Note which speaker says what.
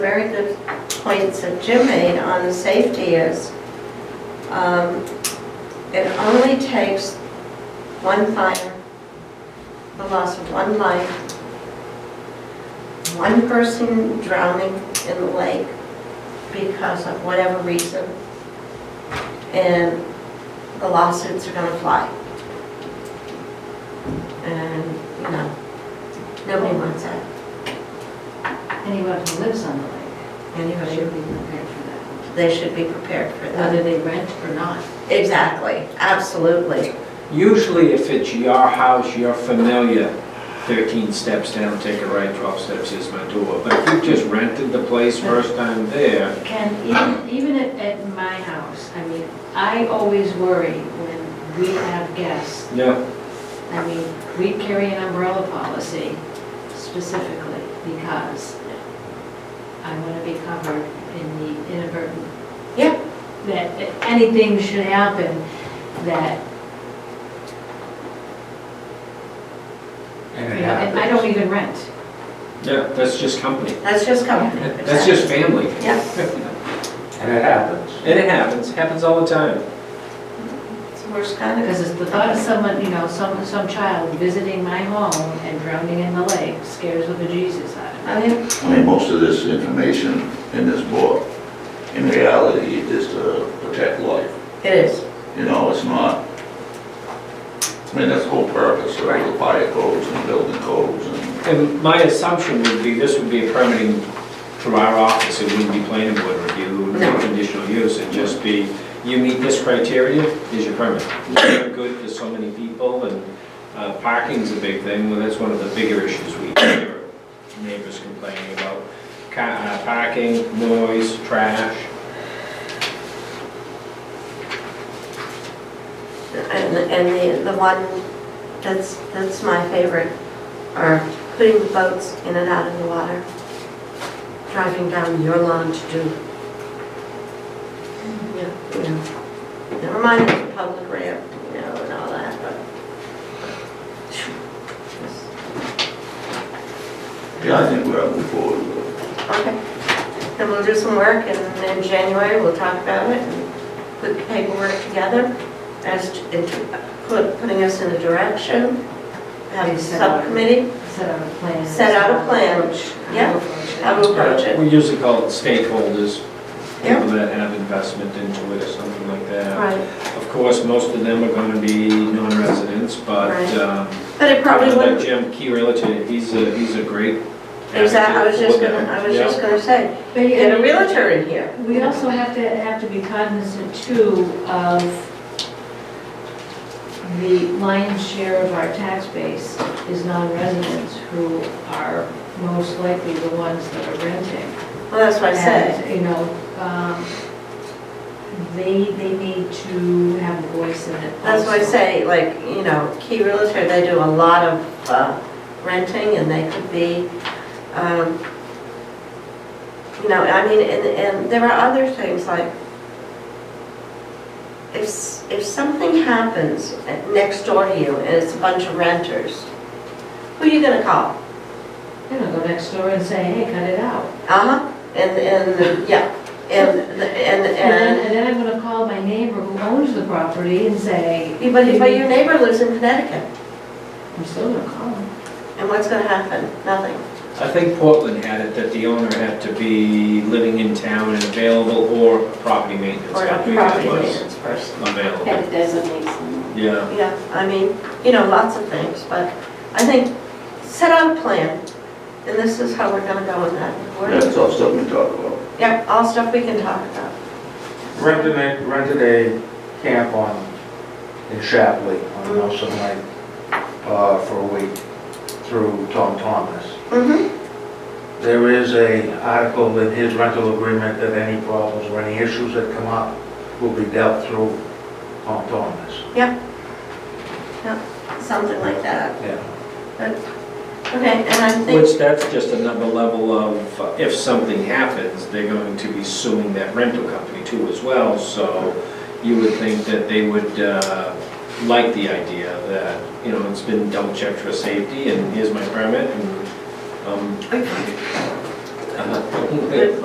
Speaker 1: very good points that Jim made on the safety is, um, it only takes one fire, the loss of one life, one person drowning in the lake because of whatever reason, and the lawsuits are gonna fly. And, you know, nobody wants that,
Speaker 2: Anyone who lives on the lake
Speaker 1: anybody.
Speaker 2: should be prepared for that,
Speaker 1: they should be prepared for
Speaker 2: whether
Speaker 1: that.
Speaker 2: they rent or not.
Speaker 1: Exactly, absolutely.
Speaker 3: Usually if it's your house, you're familiar, 13 steps down, take a right, 12 steps is my door. But if you just rented the place first time there,
Speaker 2: And even, even at, at my house, I mean, I always worry when we have guests.
Speaker 3: yeah,
Speaker 2: I mean, we carry an umbrella policy specifically because I want to be covered in the inadvertent.
Speaker 1: Yeah.
Speaker 2: That that anything should happen that,
Speaker 4: And
Speaker 2: you
Speaker 4: it
Speaker 2: know, and I
Speaker 4: happens.
Speaker 2: don't even rent.
Speaker 3: yeah, that's just company.
Speaker 1: That's just company.
Speaker 3: That's just family.
Speaker 1: Yeah,
Speaker 4: And it happens.
Speaker 3: And it happens, happens all the time.
Speaker 1: it's the worst kind
Speaker 2: Because
Speaker 1: of,
Speaker 2: it's the thought of someone, you know, some, some child visiting my home and drowning in the lake scares the bejesus out of me.
Speaker 1: I mean,
Speaker 5: I mean, most of this information in this book, in reality, is to protect life.
Speaker 1: it is.
Speaker 5: You know, it's not, I mean, that's the whole purpose of the fire codes and building codes and,
Speaker 3: And my assumption would be, this would be a permitting through our office, it wouldn't be planning board review, it would
Speaker 1: No.
Speaker 3: be conditional use, it'd just be, you meet this criteria, is your permit. It's very good for so many people, and uh, parking's a big thing, well, that's one of the bigger issues we hear, neighbors complaining about, Ca- uh, parking, noise, trash.
Speaker 1: And, and the, the one that's, that's my favorite are putting the boats in and out of the water, driving down your lawn to do. Yeah, you know, never mind it's a public ramp, you know, and all that, but.
Speaker 5: yeah, I think we're moving forward. with it.
Speaker 1: Okay, then we'll do some work, and then in January, we'll talk about it, and put the paperwork together as, to- into- put- putting us in a direction, have a subcommittee,
Speaker 2: Set out a plan. uh,
Speaker 1: Set out a plan.
Speaker 2: Approach.
Speaker 1: Yeah. how to approach it.
Speaker 3: We usually call it stakeholders,
Speaker 1: Yeah.
Speaker 3: people that have investment into it or something like that.
Speaker 1: Right,
Speaker 3: Of course, most of them are gonna be non-residents, but,
Speaker 1: Right.
Speaker 3: um,
Speaker 1: but it probably
Speaker 3: like
Speaker 1: wouldn't,
Speaker 3: Jim Key Realtor, he's a, he's a great.
Speaker 1: exactly, I was
Speaker 3: advocate
Speaker 1: just
Speaker 3: for
Speaker 1: gonna,
Speaker 3: them.
Speaker 1: I was
Speaker 3: Yeah.
Speaker 1: just gonna say,
Speaker 2: But
Speaker 1: you get a
Speaker 2: you-
Speaker 1: realtor in here.
Speaker 2: we also have to, have to be cognizant too of the lion's share of our tax base is non-residents who are most likely the ones that are renting.
Speaker 1: Well, that's what I said,
Speaker 2: And, you know, um, they, they need to have a voice in it.
Speaker 1: that's what I
Speaker 2: also.
Speaker 1: say, like, you know, Key Realtor, they do a lot of uh, renting, and they could be, um, you know, I mean, and, and there are other things like, if, s- if something happens next door to you and it's a bunch of renters, who are you gonna call?
Speaker 2: You know, go next door and say, hey, cut it out.
Speaker 1: Uh-huh, and, and, yeah, and, the-
Speaker 2: And then,
Speaker 1: and,
Speaker 2: and then I'm gonna call my neighbor who owns the property and say.
Speaker 1: and, but, but your neighbor lives in Connecticut,
Speaker 2: I'm still gonna call him.
Speaker 1: and what's gonna happen? Nothing.
Speaker 3: I think Portland had it that the owner had to be living in town and available or a property maintenance
Speaker 1: Or a
Speaker 3: company that
Speaker 1: property
Speaker 3: was
Speaker 1: maintenance person.
Speaker 3: available. Yeah,
Speaker 1: Yeah, I mean, you know, lots of things, but I think, set out a plan, and this is how we're gonna go with that.
Speaker 5: That's all stuff we talk about.
Speaker 1: Yeah, all stuff we can talk about.
Speaker 4: Rented a, rented a camp on, in Shapley,
Speaker 2: Mm.
Speaker 4: on Nelson Lake, uh, for a week through Tom Thomas.
Speaker 1: Mm-hmm,
Speaker 4: There is a article in his rental agreement that any problems or any issues that come up will be dealt through Tom Thomas.
Speaker 1: something like that.
Speaker 4: Yeah.
Speaker 1: Okay, and I think,
Speaker 3: which that's just another level of, uh, if something happens, they're going to be suing that rental company too as well, so you would think that they would uh, like the idea that, you know, it's been double checked for safety and here's my permit and, um, Good